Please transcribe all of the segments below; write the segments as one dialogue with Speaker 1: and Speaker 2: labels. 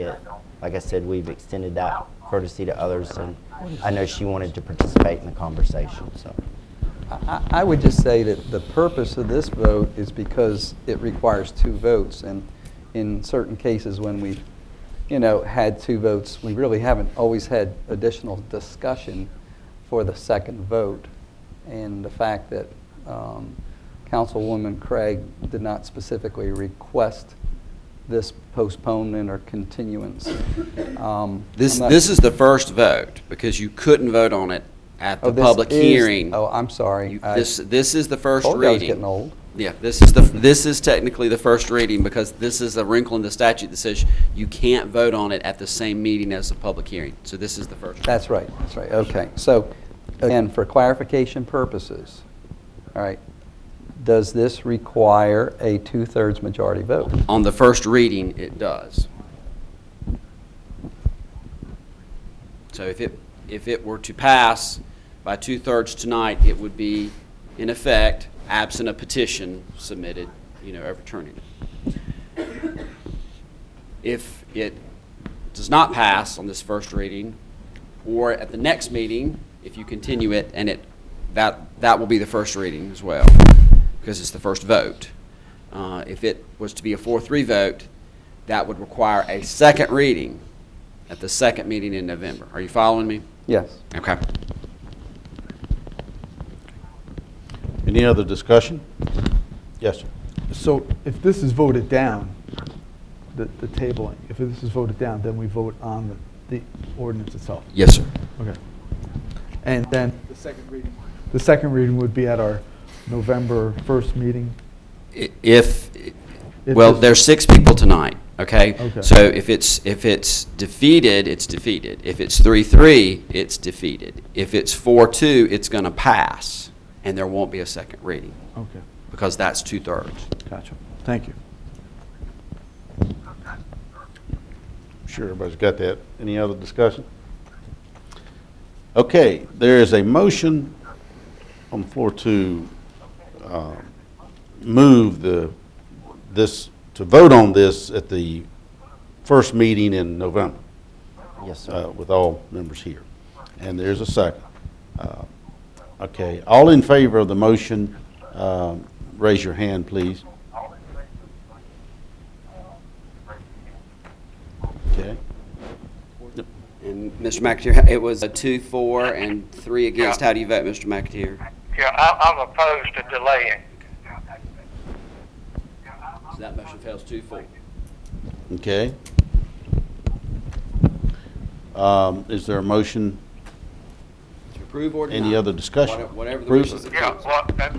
Speaker 1: it. Like I said, we've extended that courtesy to others, and I know she wanted to participate in the conversation, so.
Speaker 2: I I would just say that the purpose of this vote is because it requires two votes, and in certain cases, when we, you know, had two votes, we really haven't always had additional discussion for the second vote. And the fact that um, Councilwoman Craig did not specifically request this postponement or continuance. Um,
Speaker 3: This, this is the first vote, because you couldn't vote on it at the public hearing.
Speaker 2: Oh, I'm sorry.
Speaker 3: You-
Speaker 2: I
Speaker 3: This, this is the first
Speaker 2: told
Speaker 3: reading.
Speaker 2: you I was getting old.
Speaker 3: Yeah, this is the, this is technically the first reading, because this is a wrinkle in the statute that says you can't vote on it at the same meeting as the public hearing. So this is the first.
Speaker 2: That's right, that's right, okay. So, again, for clarification purposes, all right, does this require a two-thirds majority vote?
Speaker 3: On the first reading, it does. So if it, if it were to pass by two-thirds tonight, it would be in effect, absent a petition submitted, you know, overturning it. If it does not pass on this first reading, or at the next meeting, if you continue it, and it, that, that will be the first reading as well, because it's the first vote. Uh, If it was to be a four-three vote, that would require a second reading at the second meeting in November. Are you following me?
Speaker 2: Yes.
Speaker 3: Okay.
Speaker 4: Any other discussion? Yes, sir.
Speaker 5: So if this is voted down, the, the tabling, if this is voted down, then we vote on the, the ordinance itself?
Speaker 3: Yes, sir.
Speaker 5: Okay. And then? The second reading. The second reading would be at our November 1st meeting?
Speaker 3: I- If,
Speaker 5: If
Speaker 3: well,
Speaker 5: this-
Speaker 3: there's six people tonight, okay?
Speaker 5: Okay.
Speaker 3: So if it's, if it's defeated, it's defeated. If it's three-three, it's defeated. If it's four-two, it's going to pass, and there won't be a second reading,
Speaker 5: Okay,
Speaker 3: because that's two-thirds.
Speaker 5: gotcha. Thank you.
Speaker 4: Sure, everybody's got that. Any other discussion? Okay, there is a motion on the floor to um, move the, this, to vote on this at the first meeting in November
Speaker 1: Yes, sir.
Speaker 4: uh, with all members here. And there's a second. Uh, Okay, all in favor of the motion, um, raise your hand, please. Okay.
Speaker 3: And Mr. McAteer, it was a two, four, and three against. How do you vote, Mr. McAteer?
Speaker 6: Yeah, I, I'm opposed to delaying.
Speaker 3: So that motion fails two, four.
Speaker 4: Okay. Um, Is there a motion,
Speaker 3: To approve or deny?
Speaker 4: any other discussion?
Speaker 3: Whatever- Whatever the
Speaker 4: Approve
Speaker 3: wishes
Speaker 4: it.
Speaker 3: of
Speaker 6: Yeah,
Speaker 3: council.
Speaker 6: well, that's,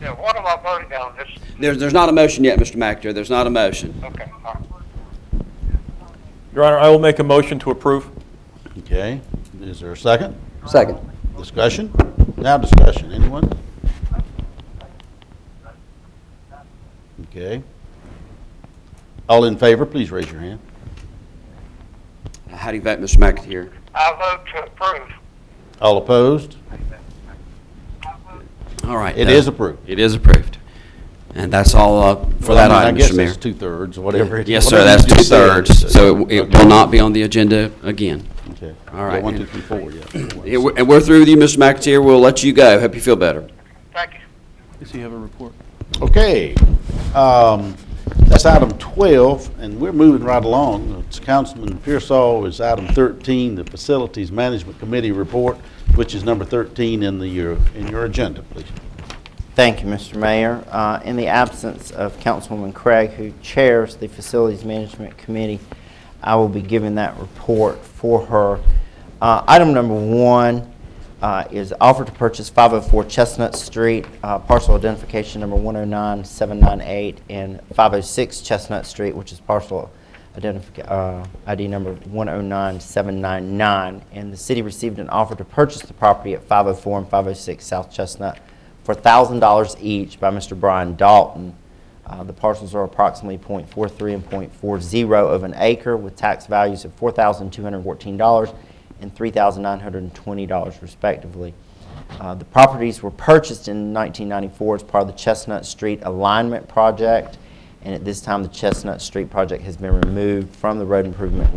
Speaker 6: yeah, what am I voting on this?
Speaker 3: There's, there's not a motion yet, Mr. McAteer. There's not a motion.
Speaker 6: Okay, all right.
Speaker 7: Your Honor, I will make a motion to approve.
Speaker 4: Okay, is there a second?
Speaker 2: Second.
Speaker 4: Discussion? Now discussion, anyone? Okay. All in favor, please raise your hand.
Speaker 3: How do you vote, Mr. McAteer?
Speaker 6: I vote to approve.
Speaker 4: All opposed?
Speaker 3: All right.
Speaker 4: It
Speaker 3: uh,
Speaker 4: is approved.
Speaker 3: It is approved. And that's all uh, for
Speaker 4: Well,
Speaker 3: that
Speaker 4: I
Speaker 3: item,
Speaker 4: mean,
Speaker 3: Mr.
Speaker 4: I guess
Speaker 3: Mayor.
Speaker 4: it's two-thirds, whatever it is.
Speaker 3: Yes, sir,
Speaker 4: whatever
Speaker 3: that's
Speaker 4: you just said.
Speaker 3: two-thirds, so it- it
Speaker 4: Okay.
Speaker 3: will not be on the agenda again.
Speaker 4: Okay.
Speaker 3: All right.
Speaker 4: Yeah, One, two, three, four, yeah.
Speaker 3: Yeah, we're- And we're through with you, Mr. McAteer. We'll let you go. Hope you feel better.
Speaker 6: Thank you.
Speaker 7: Does he have a report?
Speaker 4: Okay, um, that's item 12, and we're moving right along. It's Councilman Pearsall is item 13, the Facilities Management Committee report, which is number 13 in the, your- in your agenda, please.
Speaker 1: Thank you, Mr. Mayor. Uh, In the absence of Councilwoman Craig, who chairs the Facilities Management Committee, I will be giving that report for her. Uh, Item number one uh, is offer to purchase 504 Chestnut Street, uh, parcel identification number 109798, and 506 Chestnut Street, which is parcel identific, uh, ID number 109799. And the city received an offer to purchase the property at 504 and 506 South Chestnut for $1,000 each by Mr. Brian Dalton. Uh, The parcels are approximately .43 and .40 of an acre with tax values of $4,214 and $3,920 respectively. Uh, The properties were purchased in 1994 as part of the Chestnut Street Alignment Project, and at this time, the Chestnut Street Project has been removed from the road improvement